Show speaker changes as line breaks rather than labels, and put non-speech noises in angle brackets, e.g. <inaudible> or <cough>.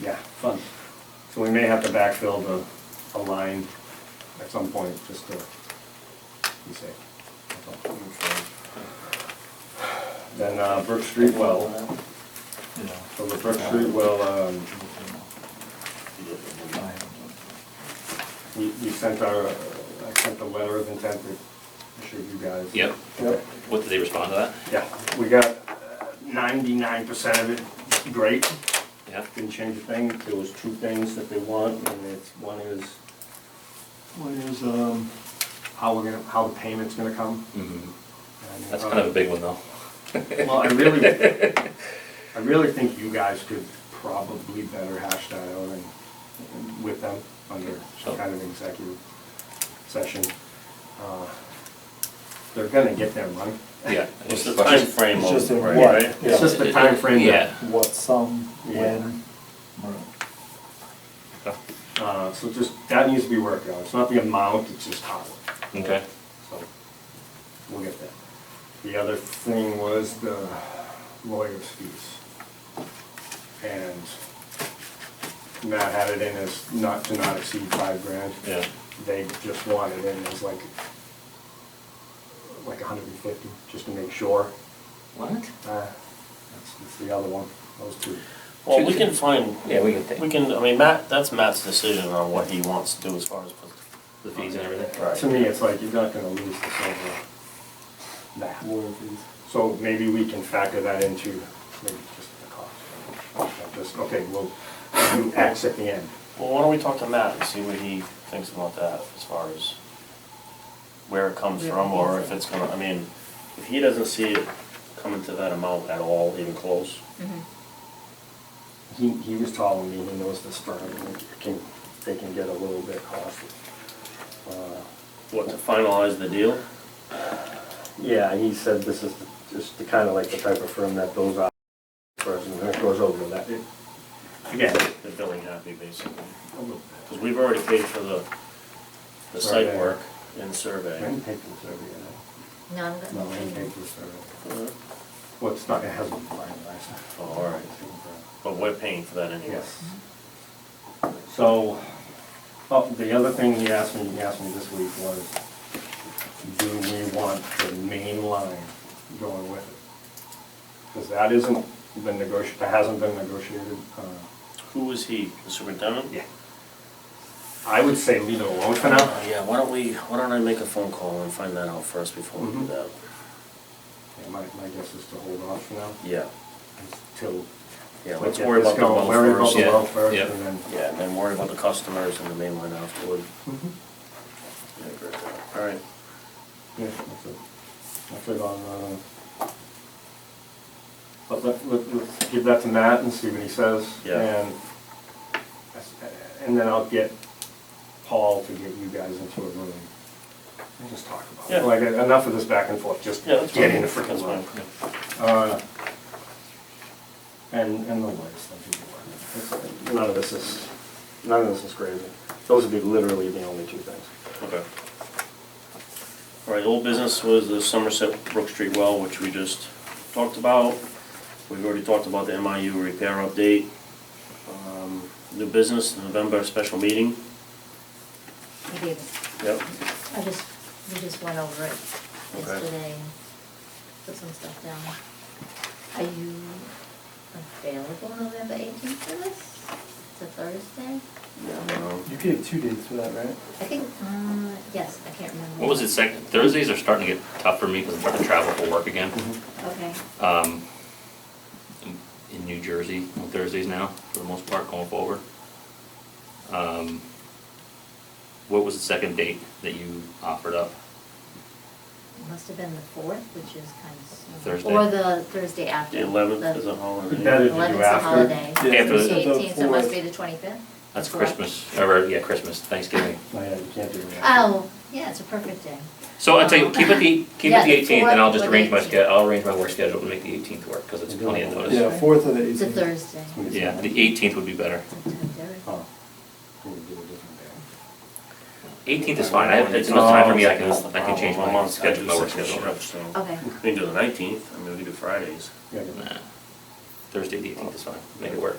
Yeah,
fund.
so we may have to backfill the, a line at some point, just to be safe. That's all. Then uh, Brook Street well, so the Brook Street well, um, we, we sent our, uh, I sent the letter of intent to issue you guys.
Yep.
Yep.
What, did they respond to that?
Yeah, we got ninety-nine percent of it, great.
Yeah?
Didn't change a thing, there was two things that they want, and it's, one is, one is, um, how we're gonna, how the payment's gonna come. And,
That's
uh,
kind of a big one though.
Well, I really, I really think you guys could probably better hash that out and, and with them under some kind of executive session. Uh, They're gonna get their money.
<laughs> Yeah.
It's
It's-
the time frame
It's just
of,
a
right,
what,
right? It's
yeah.
just the time frame.
Yeah.
What, some, when,
Uh, so just, that needs to be worked out, it's not the amount, it's just how.
Okay.
So, we'll get that. The other thing was the lawyer's fees. And Matt had it in as not to not exceed five grand.
Yeah.
They just wanted it in as like, like hundred and fifty, just to make sure.
What?
Uh, That's, that's the other one, those two.
Well, we can find,
Yeah, we can
we
take
can, I mean, Matt, that's Matt's decision on what he wants to do as far as.
the fees and everything.
To me, it's like, you're not gonna lose this over that.
lawyer fees.
So maybe we can factor that into maybe just the cost. Just, okay, we'll do X at the end.
Well, why don't we talk to Matt and see what he thinks about that as far as where it comes from or if it's gonna, I mean, if he doesn't see it coming to that amount at all, even close.
He, he was telling me, he knows this firm, and it can, they can get a little bit costly. Uh,
What, to finalize the deal?
Yeah, and he said this is the- just the kind of like the type of firm that bills out first and then it goes over that.
Again, the billing happy basically,
A little
because we've already paid for the, the site
Survey.
work and
bit. I
survey.
didn't pay for the survey, I
No, I'm
know. No, I didn't pay
good.
for the survey. Well, it's not, it hasn't been finalized.
Oh, all right. But we're paying for that anyway.
Yes. So, oh, the other thing he asked me, he asked me this week was, do we want the main line going with it? Because that isn't been negotiated, that hasn't been negotiated. uh,
Who is he, the superintendent?
I would say leave it alone for now.
Uh, Yeah, why don't we, why don't I make a phone call and find that out first before we do
Mhm.
that?
Yeah, My, my guess is to hold off for now
Yeah,
until.
yeah,
we
let's
get
worry
this
about the
going,
well
Worry about
first.
the
yeah,
well first
yeah.
and then.
Yeah, and then worry about the customers and the main line afterward.
Mhm.
Yeah, great. All right,
Yeah, that's it. That's it on, uh, but let, let, let's give that to Matt and see what he says.
Yeah.
And, that's- and then I'll get Paul to get you guys into a room and just talk about
Yeah.
it. Like, enough of this back and forth, just
yeah, that's fine.
get in the freaking
That's
line.
fine.
Uh, And, and the lights, that should be one. It's- None of this is, none of this is crazy. Those would be literally the only two things.
Okay. All right, old business was the Somerset Brook Street well, which we just talked about. We've already talked about the MIU repair update. Um, New business, November special meeting.
We did,
Yep.
I just, we just went over it
Okay.
yesterday and put some stuff down. Are you available November eighteenth for this? It's a Thursday?
Yeah, I don't know.
You gave two dates for that, right?
I think, um, yes, I can't remember.
What was it, second, Thursdays are starting to get tough for me because I'm starting to travel for work again.
Mm-hmm.
Okay,
Um, in- in New Jersey on Thursdays now, for the most part, going forward. Um, what was the second date that you offered up?
it must have been the fourth, which is kind of. soon.
Thursday.
Or the Thursday after.
The eleventh
The-
is a holiday.
Better to do
Eleventh's a
after.
holiday.
Yeah,
Yeah, but-
The eighteenth, so it must be the twenty-fifth?
That's Christmas, or, yeah, Christmas, Thanksgiving.
Oh, yeah, you can't do that.
Oh, yeah, it's a perfect day.
So I'll tell you, keep it the, keep it
Yeah,
the
the
eighteenth, and I'll just
fourth or
arrange my
the
schedule, I'll arrange my work schedule to make the eighteenth work, because it's plenty of notice.
Yeah, fourth of the
It's a
eighteenth.
Thursday.
Yeah, the eighteenth would be better.
Oh, we do a different day.
Eighteenth is fine, I have, it's enough time for me, I can, I can change
Oh,
my
well,
schedule,
I
my
do
work
such a
schedule.
shift, so.
Okay.
We can do the nineteenth, I mean, we can do Fridays.
Yeah,
Nah. Thursday, the eighteenth is fine, make it work.